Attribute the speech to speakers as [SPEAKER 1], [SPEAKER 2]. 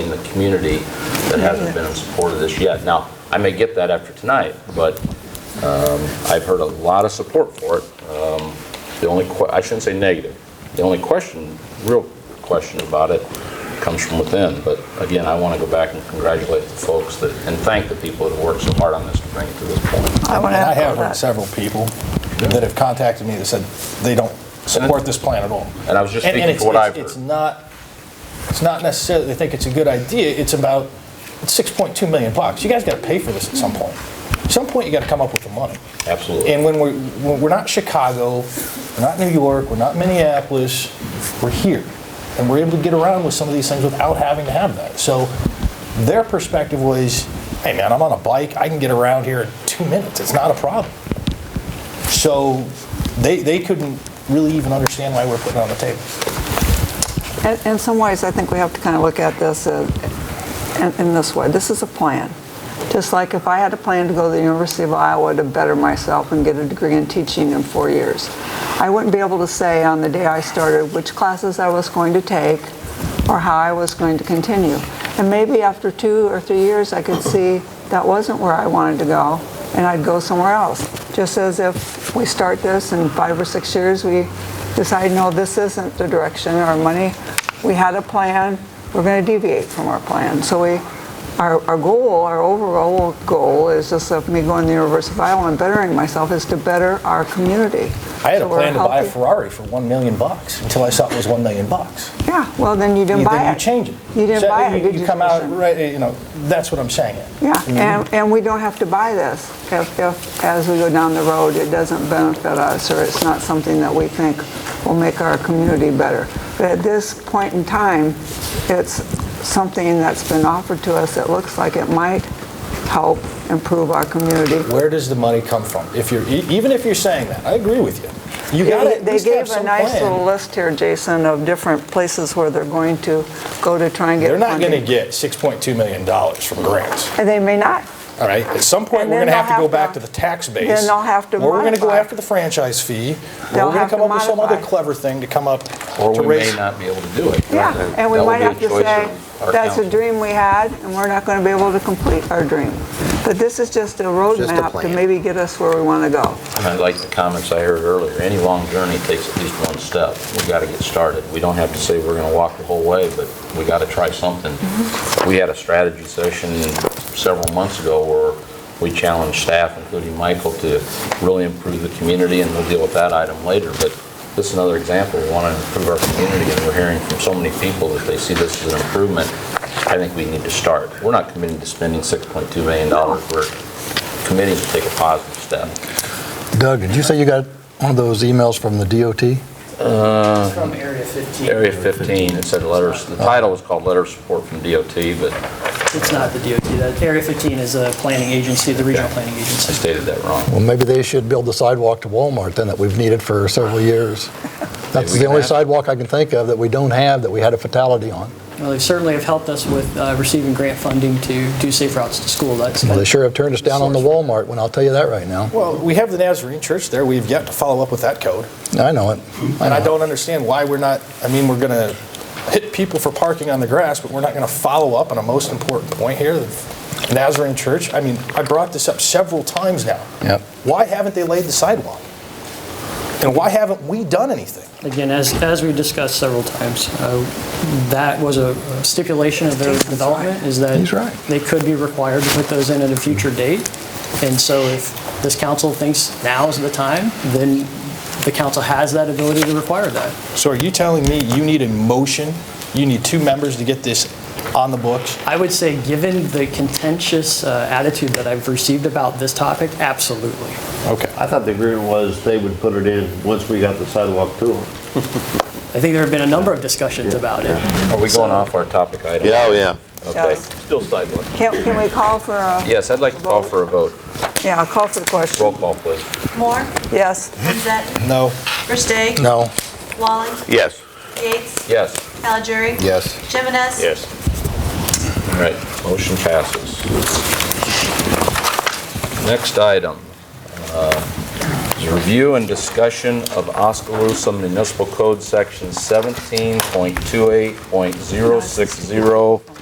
[SPEAKER 1] in the community that hasn't been in support of this yet. Now, I may get that after tonight, but um, I've heard a lot of support for it. Um, The only, que- I shouldn't say negative, the only question, real question about it comes from within. But again, I want to go back and congratulate the folks that, and thank the people that worked so hard on this to bring it to this point.
[SPEAKER 2] I want to
[SPEAKER 3] And I
[SPEAKER 2] echo
[SPEAKER 3] have heard
[SPEAKER 2] that.
[SPEAKER 3] several people that have contacted me that said they don't support this plan at all.
[SPEAKER 1] And I was just
[SPEAKER 3] And- and
[SPEAKER 1] speaking
[SPEAKER 3] it's-
[SPEAKER 1] for what
[SPEAKER 3] it's-
[SPEAKER 1] I've heard.
[SPEAKER 3] It's not, it's not necessarily, they think it's a good idea, it's about, it's 6.2 million bucks. You guys got to pay for this at some point. At some point, you got to come up with the money.
[SPEAKER 1] Absolutely.
[SPEAKER 3] And when we're, when we're not Chicago, we're not New York, we're not Minneapolis, we're here. And we're able to get around with some of these things without having to have that. So their perspective was, hey man, I'm on a bike, I can get around here in two minutes, it's not a problem. So they, they couldn't really even understand why we're putting it on the table.
[SPEAKER 2] In- In some ways, I think we have to kind of look at this uh, in in this way. This is a plan. Just like if I had a plan to go to the University of Iowa to better myself and get a degree in teaching in four years, I wouldn't be able to say on the day I started which classes I was going to take or how I was going to continue. And maybe after two or three years, I could see that wasn't where I wanted to go, and I'd go somewhere else. Just as if we start this in five or six years, we decide, no, this isn't the direction, our money, we had a plan, we're going to deviate from our plan. So we, our, our goal, our overall goal is just of me going to the University of Iowa and bettering myself is to better our community.
[SPEAKER 3] I had a
[SPEAKER 2] So we're
[SPEAKER 3] plan to buy a
[SPEAKER 2] healthy-
[SPEAKER 3] Ferrari for 1 million bucks until I saw it was 1 million bucks.
[SPEAKER 2] Yeah, well, then you didn't
[SPEAKER 3] You-
[SPEAKER 2] buy it.
[SPEAKER 3] Then you change it.
[SPEAKER 2] You didn't
[SPEAKER 3] So
[SPEAKER 2] buy it,
[SPEAKER 3] you-
[SPEAKER 2] did you?
[SPEAKER 3] You come out,
[SPEAKER 2] Jason?
[SPEAKER 3] right, you know, that's what I'm saying.
[SPEAKER 2] Yeah,
[SPEAKER 3] Mm-hmm.
[SPEAKER 2] and, and we don't have to buy this if, if, as we go down the road, it doesn't benefit us, or it's not something that we think will make our community better. But at this point in time, it's something that's been offered to us that looks like it might help improve our community.
[SPEAKER 3] Where does the money come from? If you're, e- even if you're saying that, I agree with you. You got to
[SPEAKER 2] They gave a nice little list here, Jason, of different places where they're going to go to try and get
[SPEAKER 3] They're
[SPEAKER 2] funding.
[SPEAKER 3] not going to get 6.2 million dollars from grants,
[SPEAKER 2] And they may not.
[SPEAKER 3] all right? At some point,
[SPEAKER 2] And
[SPEAKER 3] we're
[SPEAKER 2] then
[SPEAKER 3] going to have
[SPEAKER 2] they'll
[SPEAKER 3] to go
[SPEAKER 2] have
[SPEAKER 3] back
[SPEAKER 2] to-
[SPEAKER 3] to the tax base.
[SPEAKER 2] then they'll have to
[SPEAKER 3] Or we're going to go
[SPEAKER 2] modify.
[SPEAKER 3] after the franchise fee. Or
[SPEAKER 2] They'll
[SPEAKER 3] we're going
[SPEAKER 2] have
[SPEAKER 3] to come
[SPEAKER 2] to
[SPEAKER 3] up with some other
[SPEAKER 2] modify.
[SPEAKER 3] clever thing to come up
[SPEAKER 1] Or
[SPEAKER 3] to
[SPEAKER 1] we
[SPEAKER 3] raise.
[SPEAKER 1] may not be able to do it.
[SPEAKER 2] Yeah,
[SPEAKER 1] That-
[SPEAKER 2] and we
[SPEAKER 1] that will
[SPEAKER 2] might
[SPEAKER 1] be a
[SPEAKER 2] have to
[SPEAKER 1] choice
[SPEAKER 2] say,
[SPEAKER 1] of our
[SPEAKER 2] that's a
[SPEAKER 1] council.
[SPEAKER 2] dream we had, and we're not going to be able to complete our dream. But this is just a roadmap to
[SPEAKER 4] plan.
[SPEAKER 2] maybe get us where we want to go.
[SPEAKER 1] And I like the comments I heard earlier, any long journey takes at least one step. We've got to get started. We don't have to say we're going to walk the whole way, but we got to try something. We had a strategy session several months ago where we challenged staff, including Michael, to really improve the community, and we'll deal with that item later. But this is another example, we want to improve our community, and we're hearing from so many people that they see this as an improvement. I think we need to start. We're not committing to spending $6.2 million. We're committing to take a positive step.
[SPEAKER 4] Doug, did you say you got one of those emails from the DOT? Uh-huh.
[SPEAKER 5] From Area 15.
[SPEAKER 1] Area 15, it said letters, the title was called Letter of Support from DOT, but
[SPEAKER 5] It's not the DOT. That Area 15 is a planning agency, the regional planning
[SPEAKER 1] I
[SPEAKER 5] agency.
[SPEAKER 1] stated that wrong.
[SPEAKER 4] Well, maybe they should build the sidewalk to Walmart then that we've needed for several years. That's
[SPEAKER 1] we
[SPEAKER 4] the
[SPEAKER 1] can
[SPEAKER 4] only
[SPEAKER 1] ask-
[SPEAKER 4] sidewalk I can think of that we don't have that we had a fatality on.
[SPEAKER 5] Well, they certainly have helped us with uh, receiving grant funding to do safe routes to school. That's
[SPEAKER 4] Well, They sure have turned us down on the Walmart one, I'll tell you that right now.
[SPEAKER 3] Well, we have the Nazarene Church there. We've yet to follow up with that code.
[SPEAKER 4] I know it.
[SPEAKER 3] And I
[SPEAKER 4] know.
[SPEAKER 3] don't understand why we're not, I mean, we're going to hit people for parking on the grass, but we're not going to follow up on a most important point here, the Nazarene Church. I mean, I brought this up several times now.
[SPEAKER 4] Yep.
[SPEAKER 3] Why haven't they laid the sidewalk? And why haven't we done anything?
[SPEAKER 5] Again, as, as we discussed several times, uh, that was a stipulation of their development, is that
[SPEAKER 4] He's right.
[SPEAKER 5] they could be required to put those in at a future date. And so if this council thinks now is the time, then the council has that ability to require that.
[SPEAKER 3] So are you telling me you need a motion? You need two members to get this on the books?
[SPEAKER 5] I would say, given the contentious uh, attitude that I've received about this topic, absolutely.
[SPEAKER 3] Okay.
[SPEAKER 6] I thought the agreement was they would put it in once we got the sidewalk to them.
[SPEAKER 5] I think there have been a number of discussions about it.
[SPEAKER 1] Are we going off our topic item?
[SPEAKER 6] yeah.
[SPEAKER 1] Okay.
[SPEAKER 2] Yes.
[SPEAKER 1] Still sidewalk.
[SPEAKER 2] Can, can we call for a,
[SPEAKER 1] Yes, I'd like to call for a vote.
[SPEAKER 2] yeah, call for the question?
[SPEAKER 1] Roll call, please.
[SPEAKER 7] Moore,
[SPEAKER 2] Yes.
[SPEAKER 7] Lizette,
[SPEAKER 3] No.
[SPEAKER 7] Versteg,
[SPEAKER 4] No.
[SPEAKER 7] Walling,
[SPEAKER 6] Yes.
[SPEAKER 7] Yates,
[SPEAKER 1] Yes.
[SPEAKER 7] Aljuri.
[SPEAKER 4] Yes.
[SPEAKER 7] Jimenez.
[SPEAKER 1] All right, motion passes. Next item uh, is review and discussion of Oskaloosa Municipal Code Section 17.28.060